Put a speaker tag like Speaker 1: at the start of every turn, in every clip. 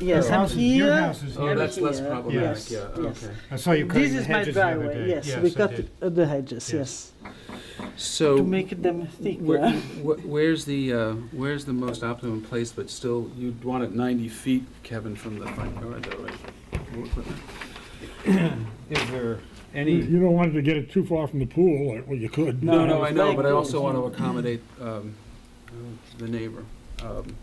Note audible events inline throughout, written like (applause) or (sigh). Speaker 1: Yes,
Speaker 2: Your
Speaker 1: I'm
Speaker 2: house is-
Speaker 1: here.
Speaker 2: Your house
Speaker 3: Oh,
Speaker 2: is
Speaker 4: Oh,
Speaker 1: Yeah,
Speaker 2: here.
Speaker 1: that's- less problematic,
Speaker 2: yeah,
Speaker 1: yes. okay.
Speaker 2: I saw you
Speaker 1: This
Speaker 2: cutting the
Speaker 1: is my
Speaker 2: hedges the other
Speaker 1: driveway,
Speaker 2: day.
Speaker 1: yes, we
Speaker 2: I
Speaker 1: cut
Speaker 2: did.
Speaker 1: uh, the hedges, yes,
Speaker 2: Yes.
Speaker 3: So.
Speaker 1: to make them
Speaker 3: Where-
Speaker 1: thicker.
Speaker 3: wh- Where's the, uh, where's the most optimum place, but still, you'd want it 90 feet, Kevin, from the front yard, though, right?
Speaker 2: Is there
Speaker 5: You
Speaker 2: any,
Speaker 5: you don't want to get it too far from the pool, like, well, you could.
Speaker 1: No,
Speaker 3: No, no, I know, but I
Speaker 1: like-
Speaker 3: also want to accommodate um, uh, the neighbor. Um,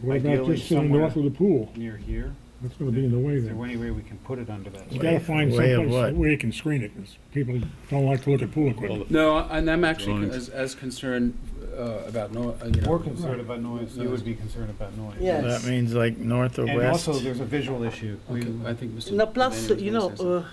Speaker 5: What about
Speaker 2: Ideally
Speaker 5: just to the
Speaker 2: somewhere-
Speaker 5: north of the pool?
Speaker 2: near here,
Speaker 5: That's gonna be in the way
Speaker 2: is there
Speaker 5: there.
Speaker 2: any way we can put it under that?
Speaker 5: You gotta find
Speaker 6: Way of
Speaker 5: someplace
Speaker 6: what?
Speaker 5: where you can screen it, 'cause people don't like to look at pool equipment.
Speaker 3: No, and I'm actually
Speaker 6: Drawings.
Speaker 3: as as concerned uh, about, no- uh, you
Speaker 2: We're
Speaker 3: know,
Speaker 2: concerned about noise, you would be concerned about noise.
Speaker 1: Yeah.
Speaker 6: That means like north or
Speaker 2: And
Speaker 6: west?
Speaker 2: also, there's a visual issue. We-
Speaker 3: okay, I think Mr.
Speaker 1: No, plus,
Speaker 3: Devaney was
Speaker 1: you
Speaker 3: gonna
Speaker 1: know,
Speaker 3: say something.
Speaker 1: uh,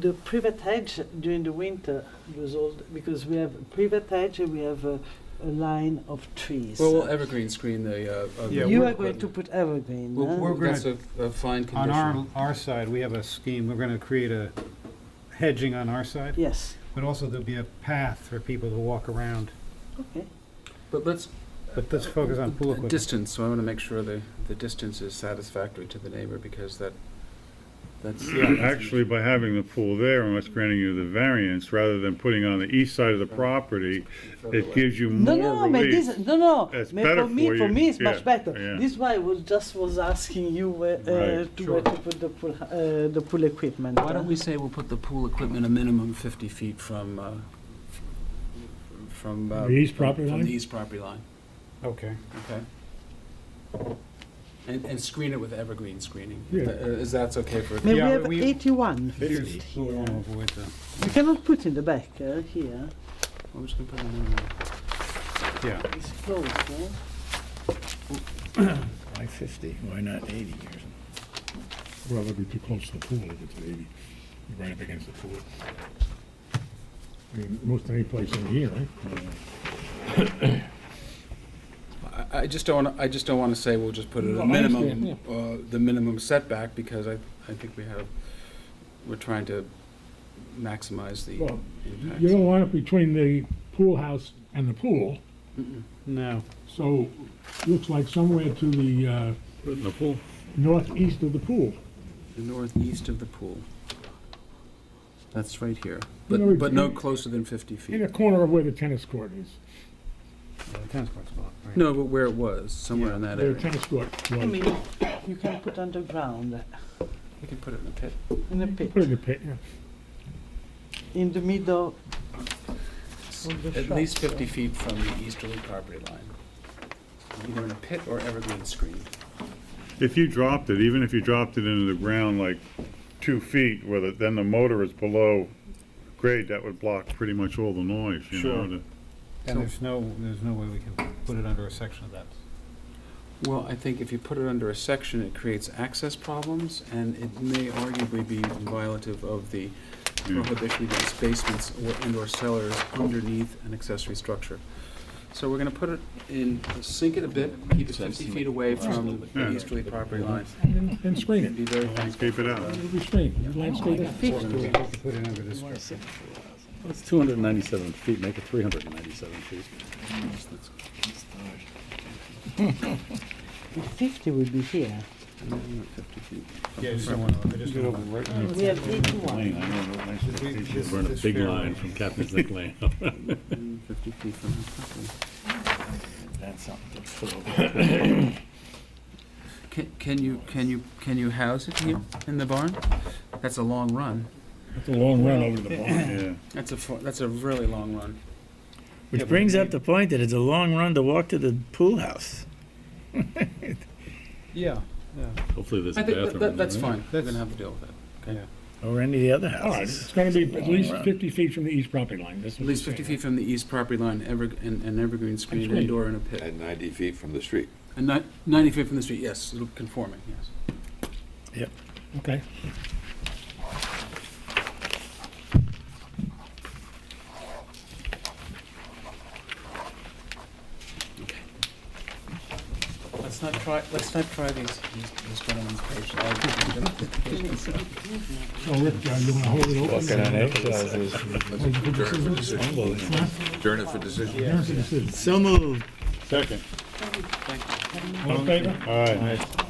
Speaker 1: the privet hedge during the winter was all, because we have privet hedge and we have a, a line of trees.
Speaker 3: Well, we'll evergreen screen the. uh, uh,
Speaker 2: Yeah,
Speaker 1: You
Speaker 2: we're-
Speaker 1: are going to put evergreen,
Speaker 3: Well,
Speaker 1: huh?
Speaker 2: we're gonna-
Speaker 3: That's a a fine
Speaker 2: On our,
Speaker 3: condition.
Speaker 2: our side, we have a scheme, we're gonna create a hedging on our side,
Speaker 1: Yes,
Speaker 2: but also there'll be a path for people to walk around.
Speaker 1: okay.
Speaker 3: But let's
Speaker 2: But let's focus on pool equipment.
Speaker 3: Distance, so I want to make sure the, the distance is satisfactory to the neighbor, because that, that's.
Speaker 4: Actually, by having the pool there and us granting you the variance, rather than putting on the east side of the property, it gives you
Speaker 1: No,
Speaker 4: more
Speaker 1: no, but
Speaker 4: relief.
Speaker 1: this, no, no.
Speaker 4: That's
Speaker 1: but
Speaker 4: better
Speaker 1: for me,
Speaker 4: for
Speaker 1: for
Speaker 4: you.
Speaker 1: me, it's much
Speaker 4: Yeah,
Speaker 1: better.
Speaker 4: yeah.
Speaker 1: This why I was just was asking you where, uh,
Speaker 4: Right.
Speaker 1: to where to put the pool, uh, the pool equipment.
Speaker 3: Why
Speaker 1: huh?
Speaker 3: don't we say we'll put the pool equipment a minimum fifty feet from, uh, f- from. uh,
Speaker 5: The east property
Speaker 3: From
Speaker 5: line?
Speaker 3: the east property line,
Speaker 2: Okay.
Speaker 3: okay? And, and screen it with evergreen screening, if
Speaker 5: Yeah.
Speaker 3: tha- uh, is that's okay for,
Speaker 1: Maybe
Speaker 2: Yeah,
Speaker 1: we
Speaker 2: but
Speaker 1: have
Speaker 2: we-
Speaker 1: eighty-one.
Speaker 2: Here's what we wanna avoid though.
Speaker 1: You cannot put in the back, uh, here,
Speaker 3: I'm just gonna put a minimum.
Speaker 2: Yeah,
Speaker 1: it's closed, huh?
Speaker 6: Why fifty, why not eighty or something?
Speaker 5: Well, that'd be too close to the pool if it's eighty, You're right up against the pool. I mean, most any place in here, right?
Speaker 3: I, I just don't, wanna- I just don't wanna say we'll just put it at
Speaker 5: No, I
Speaker 3: a minimum,
Speaker 5: understand,
Speaker 3: uh, the minimum setback, because I, I think we have, we're trying to maximize the
Speaker 5: Well,
Speaker 3: impact.
Speaker 5: You don't want it between the pool house and the pool,
Speaker 2: no.
Speaker 5: so looks like somewhere to the, uh,
Speaker 4: Put it in the pool.
Speaker 5: northeast of the pool.
Speaker 3: The northeast of the pool. That's right here,
Speaker 5: You know,
Speaker 3: but, but no
Speaker 5: it-
Speaker 3: closer than fifty
Speaker 5: In the
Speaker 3: feet.
Speaker 5: corner of where the tennis court is,
Speaker 2: The tennis court's blocked, right?
Speaker 3: No, but where it was, somewhere in that
Speaker 5: where the
Speaker 3: area.
Speaker 5: tennis court
Speaker 1: I
Speaker 5: was.
Speaker 1: mean, you can put underground, uh,
Speaker 3: We can put it in a pit.
Speaker 1: in a
Speaker 5: Put it in
Speaker 1: pit,
Speaker 5: the pit, yeah.
Speaker 1: in the middle. Of the
Speaker 3: At
Speaker 1: shop,
Speaker 3: least fifty
Speaker 1: yeah.
Speaker 3: feet from the easterly property line. Either in a pit or evergreen screen.
Speaker 4: If you dropped it, even if you dropped it into the ground like two feet, where the- then the motor is below grade, that would block pretty much all the noise, you know?
Speaker 2: Sure.
Speaker 4: the-
Speaker 2: And there's no, there's no way we can put it under a section of that.
Speaker 3: Well, I think if you put it under a section, it creates access problems, and it may arguably be violative of the
Speaker 4: Yeah.
Speaker 3: prohibition against basements or indoor cellars underneath an accessory structure. So we're gonna put it in, sink it a bit, keep it fifty feet away from the
Speaker 4: Yeah.
Speaker 3: easterly property line.
Speaker 5: And and screen it.
Speaker 3: Be very thankful.
Speaker 4: Keep it out.
Speaker 5: It'll be screened,
Speaker 1: Oh,
Speaker 5: landscape it.
Speaker 2: We could put it under this structure.
Speaker 7: It's 297 feet, make it 397 feet.
Speaker 1: Fifty would be here,
Speaker 2: Yeah, I just don't want to, I just don't want
Speaker 1: we have eighty-one.
Speaker 2: to.
Speaker 7: We're in a big line from Captain's Neck Lane.
Speaker 3: Fifty feet from the property.
Speaker 6: That's something to put over.
Speaker 3: Can, can you, can you, can you house it here in the barn? That's a long run.
Speaker 5: It's a long run over to the barn.
Speaker 4: (laughs) Yeah.
Speaker 3: That's a, fu- that's a really long run.
Speaker 2: Yeah,
Speaker 6: Which
Speaker 2: but
Speaker 6: brings
Speaker 2: we-
Speaker 6: up the point that it's a long run to walk to the pool house.
Speaker 2: Yeah, yeah.
Speaker 7: Hopefully there's a
Speaker 3: I
Speaker 7: bathroom.
Speaker 3: think,
Speaker 7: in
Speaker 3: that-
Speaker 7: there,
Speaker 3: that, that's
Speaker 7: right?
Speaker 3: fine, we're
Speaker 2: That's-
Speaker 3: gonna have to deal with that.
Speaker 6: Or any of the other
Speaker 5: All right,
Speaker 6: houses.
Speaker 5: it's gonna be at least
Speaker 6: Long run.
Speaker 5: fifty feet from the east property line, that's
Speaker 3: At
Speaker 5: what
Speaker 3: least
Speaker 5: you're
Speaker 3: 50
Speaker 5: saying,
Speaker 3: feet from the east property line, ever, and, and evergreen screened
Speaker 5: great.
Speaker 3: indoor in a pit.
Speaker 8: And 90 feet from the street.
Speaker 3: And ni- 90 feet from the street, yes, it'll conforming, yes.
Speaker 5: right? Okay.
Speaker 3: Let's not try, let's not try these, these these gentlemen's patience.
Speaker 5: So Rick, uh, you wanna hold it open?
Speaker 8: Adjourn it for decision.
Speaker 5: There's the decision.
Speaker 6: So moved.
Speaker 4: Second.
Speaker 3: Thank you.
Speaker 5: All in favor?
Speaker 4: All right.